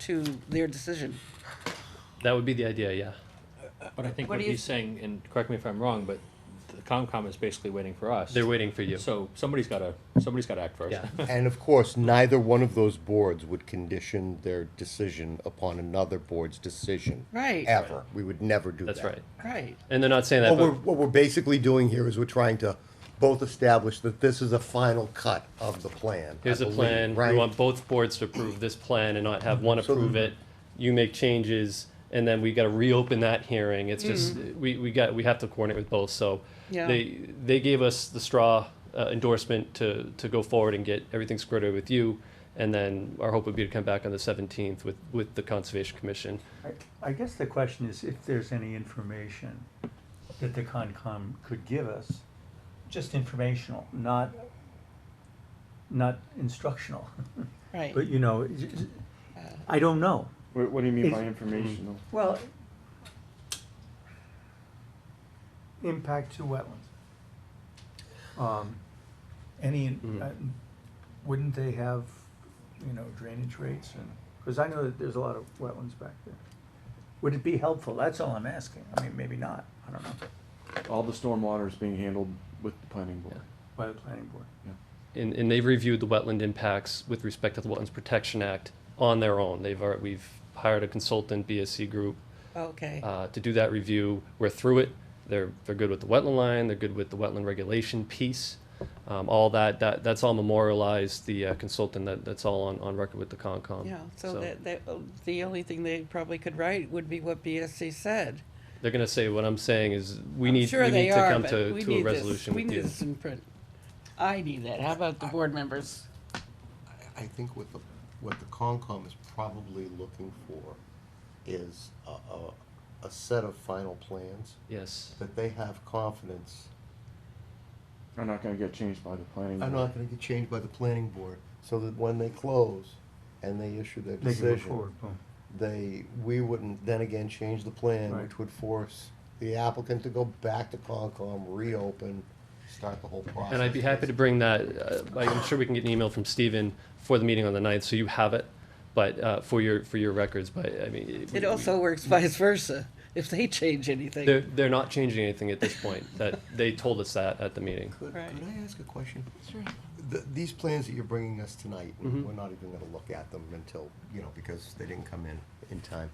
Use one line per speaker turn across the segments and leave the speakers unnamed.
to their decision.
That would be the idea, yeah.
But I think
What
what
do you
he's saying, and correct me if I'm wrong, but the Comcom is basically waiting for us.
They're waiting for you.
So somebody's gotta, somebody's gotta act first.
Yeah.
And of course, neither one of those boards would condition their decision upon another board's decision.
Right.
Ever. We would never do that.
That's right.
Right.
And they're not saying that,
What Oh, we're,
but
what we're basically doing here is we're trying to both establish that this is a final cut of the plan. I
here's a
believe,
plan.
Right?
We want both boards to approve this plan and not have one
So-
approve it. You make changes and then we gotta reopen that hearing. It's just, we, we got, we have to coordinate with both, so.
Yeah.
They, they gave us the straw uh, endorsement to, to go forward and get everything squared away with you. And then our hope would be to come back on the seventeenth with, with the Conservation Commission.
I- I guess the question is if there's any information that the Concom could give us, just informational, not, not instructional.
Right.
But you know, j- j- I don't know.
What, what do you mean by
Is-
informational?
Well, impact to wetlands. Um, Any, uh, wouldn't they have, you know, drainage rates and, because I know that there's a lot of wetlands back there. Would it be helpful? That's all I'm asking. I mean, maybe not, I don't know,
All the storm water is being handled with the planning board.
by the planning board.
And, and they've reviewed the wetland impacts with respect to the Wetlands Protection Act on their own. They've, alre- we've hired a consultant, BSC Group,
Oh, Okay.
uh, to do that review. We're through it. They're, they're good with the wetland line, they're good with the wetland regulation piece. Um, all that, that, that's all memorialized, the uh, consultant, that, that's all on, on record with the Concom.
Yeah, so that, that, uh, the only thing they probably could write would be what BSC said.
They're gonna say, what I'm saying is, we
I'm
need,
sure
we
they
need to
are,
come
but
to,
we
to
need
a
this-
resolution with you.
We need this in print. I need that. How about the board members?
I think what the, what the Concom is probably looking for is a, a, a set of final plans
Yes,
that they have confidence
They're not gonna get changed by the planning
are
board.
not gonna get changed by the planning board, so that when they close and they issue their
They can move
decision,
forward, boom.
they, we wouldn't then again change the plan,
Right.
which would force the applicant to go back to Concom, reopen, start the whole process.
and I'd be happy to bring that, uh, I'm sure we can get an email from Stephen for the meeting on the ninth, so you have it, but, uh, for your, for your records, but, I mean. we-
It
we-
also works vice versa, if they change
They're,
anything.
they're not changing anything at this point, that, they told us that at the meeting.
Could, could
Right.
I ask a question? Sure. The, these plans that you're bringing us tonight,
Mhm.
we're not even gonna look at them until, you know, because they didn't come in, in time.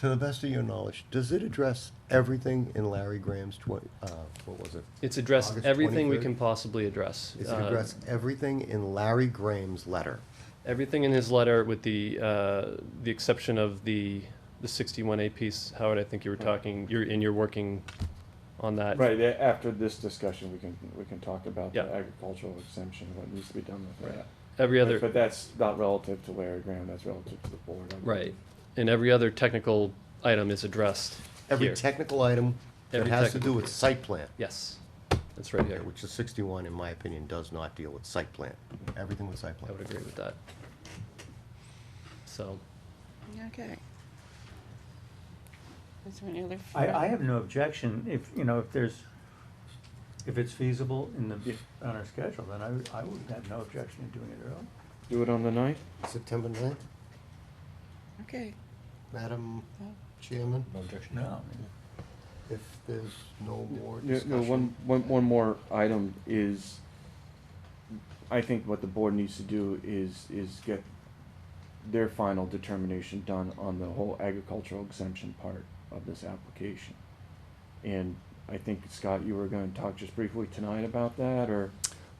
To the best of your knowledge, does it address everything in Larry Graham's twen- uh, what was it?
It's addressed
August
everything we
23rd?
can possibly address.
Is it
Uh,
address everything in Larry Graham's letter?
Everything in his letter with the, uh, the exception of the, the sixty-one A piece, Howard, I think you were talking, you're, and you're working on that.
Right, a- after this discussion, we can, we can talk about the
Yeah.
agricultural exemption, what needs to be done with that.
Every
But-
other,
But that's not relative to Larry Graham, that's relative to the board. I'm-
right, and every other technical item is addressed
Every
here.
technical item that
Every
has to do
technical.
with site plan,
Yes, that's right here,
which the sixty-one, in my opinion, does not deal with site plan. Everything with site
I
plan.
would agree with that. So,
Okay. Is there any other?
I, I have no objection if, you know, if there's, if it's feasible in the, on our schedule, then I, would- I would have no objection to doing it early.
Do it on the ninth?
September ninth,
Okay.
Madam
No.
Chairman,
No.
if there's no more
No, no,
discussion.
one, one, one more item is, I think what the board needs to do is, is get their final determination done on the whole agricultural exemption part of this application. And I think, Scott, you were gonna talk just briefly tonight about that, or?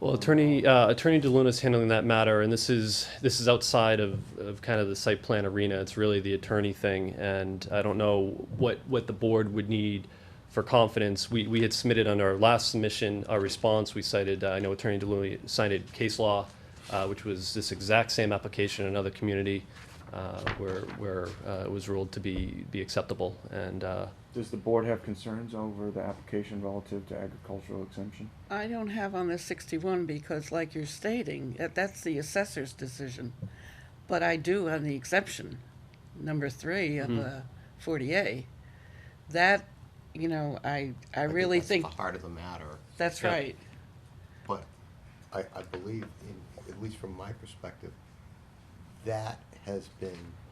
Well, attorney, uh, attorney DeLuna's handling that matter, and this is, this is outside of, of kind of the site plan arena. It's really the attorney thing, and I don't know what, what the board would need for confidence. We, we had submitted on our last submission, our response, we cited, uh, I know attorney DeLuna cited case law, uh, which was this exact same application in another community, uh, where, where, uh, it was ruled to be, be acceptable, and, uh,
Does the board have concerns over the application relative to agricultural exemption?
I don't have on the sixty-one because like you're stating, that- that's the assessor's decision. But I do on the exception, number three of the forty A. That, you know, I, I really
that's
think,
The heart of the matter,
that's
Yeah.
right.
but I, I believe, in, at least from my perspective, that has been